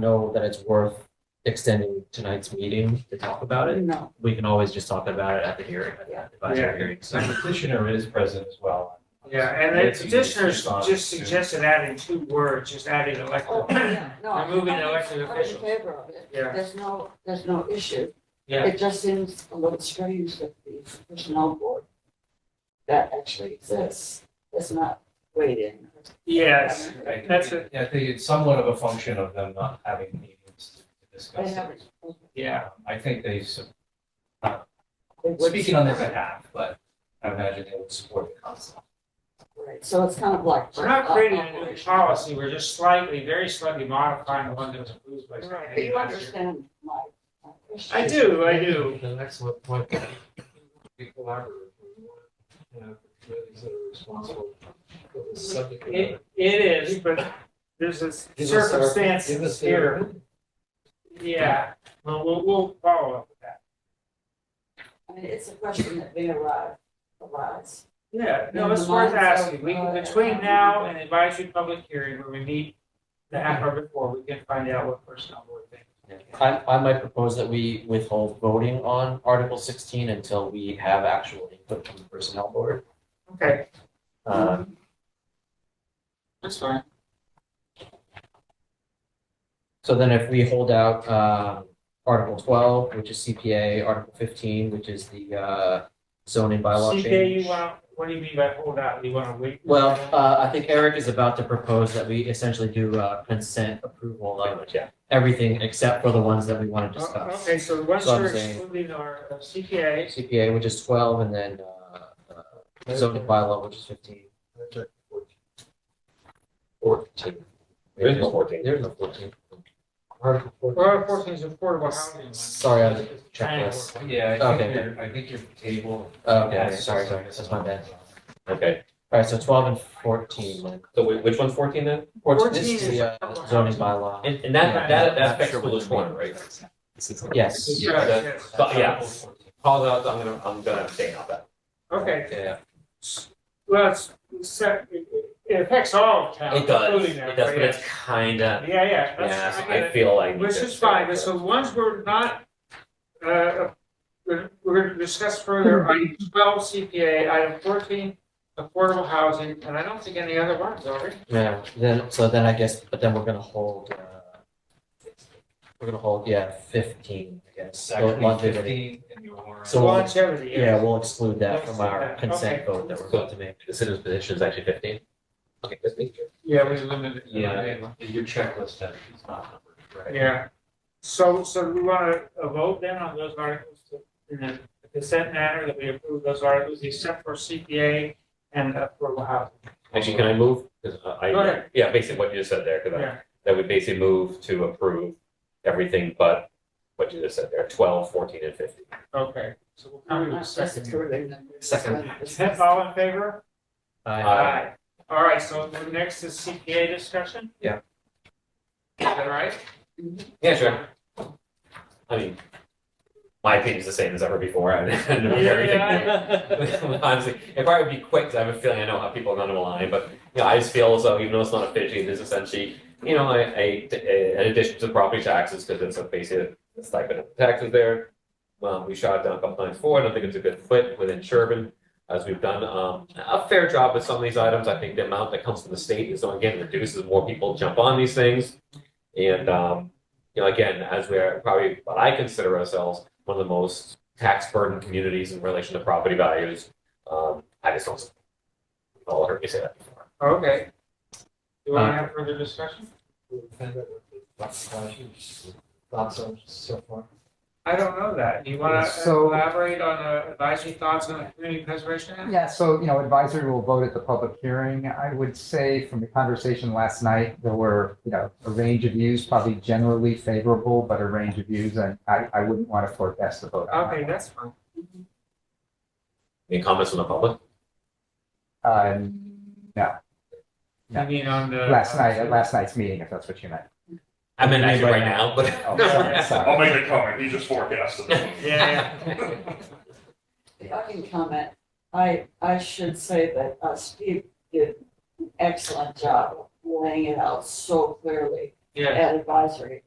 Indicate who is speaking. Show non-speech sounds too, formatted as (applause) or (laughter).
Speaker 1: know that it's worth extending tonight's meeting to talk about it.
Speaker 2: No,
Speaker 1: We can always just talk about it at the hearing, at the
Speaker 3: Yeah.
Speaker 1: advisory hearing.
Speaker 4: So
Speaker 1: So
Speaker 4: the petitioner is present as well.
Speaker 3: Yeah, and the petitioners just suggested adding two words, just adding
Speaker 2: oh,
Speaker 3: elected.
Speaker 2: yeah, no. I'm-
Speaker 3: Removing
Speaker 2: I'm in-
Speaker 3: elected officials.
Speaker 2: I'm in favor of it.
Speaker 3: Yeah.
Speaker 2: There's no, there's no issue.
Speaker 3: Yeah.
Speaker 2: It just seems a little strange that the personnel board that actually exists is not weighed in.
Speaker 3: Yes,
Speaker 4: I-
Speaker 3: that's it.
Speaker 4: Yeah, I think it's somewhat of a function of them not having meetings to
Speaker 2: They
Speaker 4: discuss.
Speaker 2: haven't.
Speaker 4: it. Yeah, I think they, su-
Speaker 2: they would-
Speaker 4: speaking on their behalf, but I imagine they would support the concept.
Speaker 2: Right, so it's kind of like.
Speaker 3: We're not creating
Speaker 2: uh,
Speaker 3: a new policy, we're just slightly, very slightly modifying the one that was approved by.
Speaker 2: Right, but you understand my my question.
Speaker 3: I do, I do.
Speaker 5: The next one, point, be collaborative. We want to Have committees that are responsible for the subject. matter.
Speaker 3: It, it is, but there's this
Speaker 5: Give us our-
Speaker 3: circumstance
Speaker 5: give us their
Speaker 3: here.
Speaker 5: opinion.
Speaker 3: Yeah, well, we'll, we'll follow up with that.
Speaker 2: I mean, it's a question that may arrive, arise.
Speaker 3: Yeah, no,
Speaker 2: In
Speaker 3: it's
Speaker 2: the
Speaker 3: worth
Speaker 2: minds of,
Speaker 3: asking. We, can
Speaker 2: uh,
Speaker 3: between now and the advisory public hearing, where we meet the half hour before, we can find out what personnel board thinks.
Speaker 1: I, I might propose that we withhold voting on Article sixteen until we have actual input from the personnel board.
Speaker 3: Okay,
Speaker 1: Um,
Speaker 3: that's fine.
Speaker 1: So then if we hold out um, Article 12, which is CPA, Article 15, which is the uh, zoning bylaw
Speaker 3: CK,
Speaker 1: change.
Speaker 3: you want, what do you mean by hold out? You want to wait?
Speaker 1: Well, uh, I think Eric is about to propose that we essentially do uh, consent approval of everything except for the ones that we want to
Speaker 3: O-
Speaker 1: discuss.
Speaker 3: Uh, Okay, so once
Speaker 1: So I'm
Speaker 3: you're
Speaker 1: saying-
Speaker 3: excluding our uh, CPA,
Speaker 1: CPA, which is 12, and then uh, uh, zoning bylaw, which is 15. Fourteen.
Speaker 5: There's no 14.
Speaker 1: There's no 14. Article
Speaker 3: well, fourteen is affordable housing. one.
Speaker 1: Sorry, I was
Speaker 3: Triangle.
Speaker 1: checklist.
Speaker 4: Yeah, I
Speaker 1: Okay.
Speaker 4: think you're, I think your table.
Speaker 1: Oh, Okay, sorry, sorry, that's my bad.
Speaker 5: Okay,
Speaker 1: All right, so twelve and fourteen, like,
Speaker 5: so whi- which one's fourteen then?
Speaker 1: fourteen,
Speaker 3: Fourteen
Speaker 1: this is
Speaker 3: is
Speaker 1: the uh, zoning bylaw.
Speaker 5: And, and that,
Speaker 3: Yeah.
Speaker 5: that, that affects Village One, right?
Speaker 1: Yes,
Speaker 5: Yeah, that-
Speaker 3: Yes.
Speaker 5: But yeah, Paul, I'm gonna, I'm gonna abstain on that.
Speaker 3: Okay,
Speaker 5: Yeah,
Speaker 3: well, it's, it's- it it affects all of town,
Speaker 5: it does,
Speaker 3: including
Speaker 5: it
Speaker 3: that.
Speaker 5: does, but it's kinda,
Speaker 3: Yeah, yeah,
Speaker 5: yeah,
Speaker 3: that's, I get
Speaker 5: I
Speaker 3: it.
Speaker 5: feel like.
Speaker 3: Which is fine, but so ones we're not, uh, we're, we're gonna discuss further, item twelve CPA, item fourteen, affordable housing, and I don't think any other ones are.
Speaker 1: yeah, then, so then I guess, but then we're gonna hold, uh, we're gonna hold, yeah, fifteen, I guess.
Speaker 4: It's
Speaker 1: So
Speaker 4: actually
Speaker 1: longevity.
Speaker 4: fifteen in your warrant.
Speaker 1: So-
Speaker 3: Longevity,
Speaker 1: Yeah,
Speaker 3: yes.
Speaker 1: we'll exclude that from our
Speaker 3: Okay.
Speaker 1: consent vote that we're about to make.
Speaker 5: The citizen's position is actually fifteen? Okay, that's me.
Speaker 3: Yeah, we limited. it.
Speaker 4: Yeah, your checklist that is not numbered, right?
Speaker 3: Yeah, so, so do we wanna uh, vote then on those articles to- in the consent manner that we approve those articles except for CPA and affordable housing.
Speaker 5: Actually, can I move? 'Cause I-
Speaker 3: Go ahead.
Speaker 5: Yeah, basically what you just said there, because I,
Speaker 3: Yeah,
Speaker 5: that would basically move to approve everything but what you just said there, twelve, fourteen, and fifteen.
Speaker 3: okay, so we'll come
Speaker 2: I'm
Speaker 3: to the
Speaker 2: not
Speaker 3: second. here.
Speaker 2: disapproving them.
Speaker 1: Second.
Speaker 2: It's-
Speaker 3: All in favor?
Speaker 1: I,
Speaker 5: Aye.
Speaker 3: Aye. All right, so the next is CPA discussion?
Speaker 1: Yeah.
Speaker 3: Is that right?
Speaker 5: Yeah, sure. I mean, my opinion's the same as ever before. (laughs) I don't
Speaker 3: (laughs)
Speaker 5: know
Speaker 3: Yeah,
Speaker 5: everything.
Speaker 3: yeah,
Speaker 5: (laughs) Honestly, if I would be quick, 'cause I have a feeling I know how people are going to align, but you know, I just feel as though even though it's not officially, there's essentially, you know, a, a, a- an addition to property taxes because it's a basic stipend of taxes there. Um, we shot it down a couple times forward. I don't think it's a good fit within Sherburne as we've done um, a fair job with some of these items. I think the amount that comes from the state is, again, reduces more people jump on these things. And, um, you know, again, as we're probably what I consider ourselves one of the most tax burden communities in relation to property values. Um, I just don't. We've all heard me say that before.
Speaker 3: Okay. Do we want to have further discussion?
Speaker 5: Thoughts on so far?
Speaker 3: I don't know that. Do you want to
Speaker 6: So-
Speaker 3: elaborate on uh, advisory thoughts on the community preservation? act?
Speaker 6: Yeah, so, you know, advisory will vote at the public hearing. I would say from the conversation last night, there were, you know, a range of views, probably generally favorable, but a range of views, and I, I wouldn't want to forecast the vote. on that.
Speaker 3: Okay, that's fine.
Speaker 5: Any comments from the public?
Speaker 6: Uh,
Speaker 3: I
Speaker 6: Yeah.
Speaker 3: mean, on the.
Speaker 6: last night, at last night's meeting, if that's what you meant.
Speaker 5: I mean,
Speaker 1: Anybody?
Speaker 5: actually right now, but.
Speaker 6: Oh,
Speaker 3: Yeah.
Speaker 6: sorry.
Speaker 7: I'll make a comment, he just forecasted. it.
Speaker 3: Yeah, (laughs)
Speaker 2: If I can comment, I, I should say that uh, Steve did an excellent job of laying it out so clearly
Speaker 3: yeah,
Speaker 2: at advisory.